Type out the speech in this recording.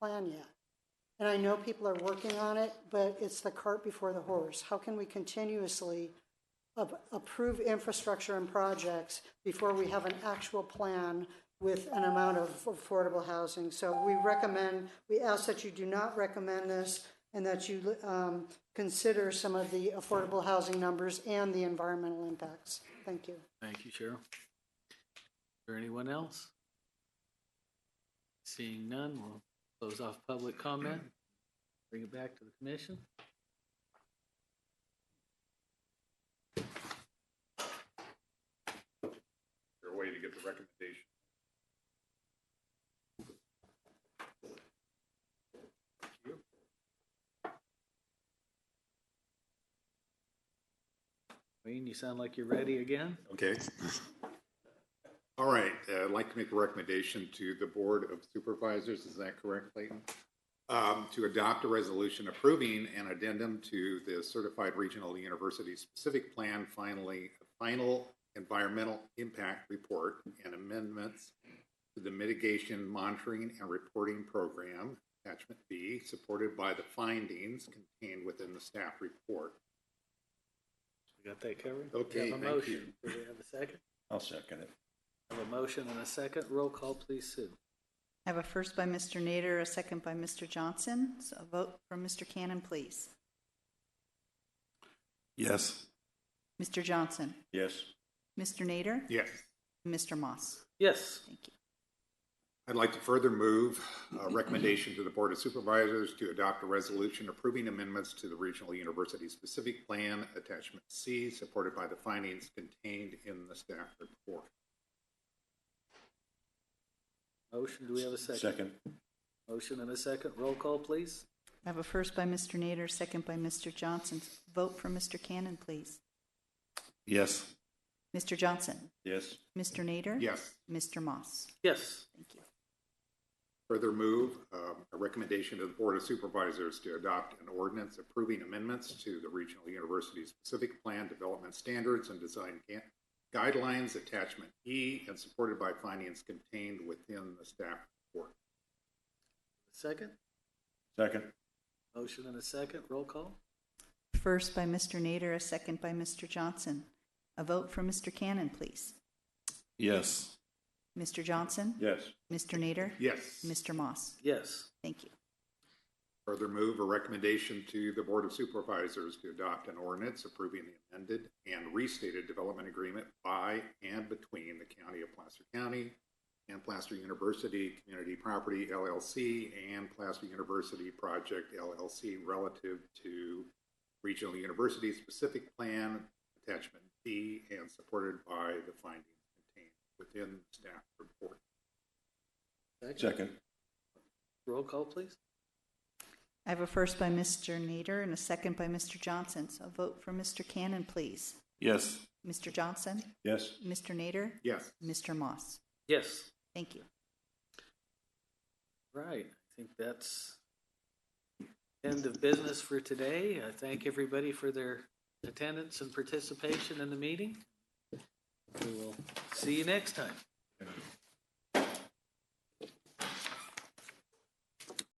plan yet. And I know people are working on it, but it's the cart before the horse. How can we continuously ap- approve infrastructure and projects before we have an actual plan with an amount of affordable housing? So we recommend, we ask that you do not recommend this and that you um, consider some of the affordable housing numbers and the environmental impacts. Thank you. Thank you, Cheryl. Or anyone else? Seeing none, we'll close off public comment, bring it back to the commission. Your way to get the recommendation. Wayne, you sound like you're ready again. Okay. All right, uh, I'd like to make a recommendation to the Board of Supervisors, is that correct, Clayton? Um, To adopt a resolution approving an addendum to the Certified Regional University Specific Plan finally, Final Environmental Impact Report and amendments to the Mitigation Monitoring and Reporting Program, attachment B, supported by the findings contained within the staff report. We got that covered? Okay, We have a thank motion. Do we have a second? I'll second it. Have a motion and a second. Roll call, please, Sue. I have a first by Mr. Nader, a second by Mr. Johnson. So a vote from Mr. Cannon, please. Yes. Mr. Johnson, Yes. Mr. Nader, Yes. and Mr. Moss. Yes, Thank you. I'd like to further move a recommendation to the Board of Supervisors to adopt a resolution approving amendments to the Regional University Specific Plan, Attachment C, supported by the findings contained in the staff report. motion. Do we have a second? Second. Motion and a second. Roll call, please. I have a first by Mr. Nader, second by Mr. Johnson. Vote from Mr. Cannon, please. Yes. Mr. Johnson, Yes. Mr. Nader, Yes. Mr. Moss. Yes, Thank you. Further move um, a recommendation to the Board of Supervisors to adopt an ordinance approving amendments to the Regional University Specific Plan Development Standards and Design Ga- Guidelines, Attachment E, and supported by findings contained within the staff report. second. Second. Motion and a second. Roll call. First by Mr. Nader, a second by Mr. Johnson. A vote from Mr. Cannon, please. Yes. Mr. Johnson, Yes. Mr. Nader, Yes. Mr. Moss. Yes, Thank you. Further move a recommendation to the Board of Supervisors to adopt an ordinance approving the amended and restated development agreement by and between the County of Placer County and Placer University Community Property LLC and Placer University Project LLC relative to Regional University Specific Plan Attachment B and supported by the findings contained within the staff report. Second. roll call, please. I have a first by Mr. Nader and a second by Mr. Johnson. So a vote for Mr. Cannon, please. Yes. Mr. Johnson, Yes. Mr. Nader, Yes. Mr. Moss. Yes. Thank you. Right, I think that's end of business for today. I thank everybody for their attendance and participation in the meeting. We will see you next time.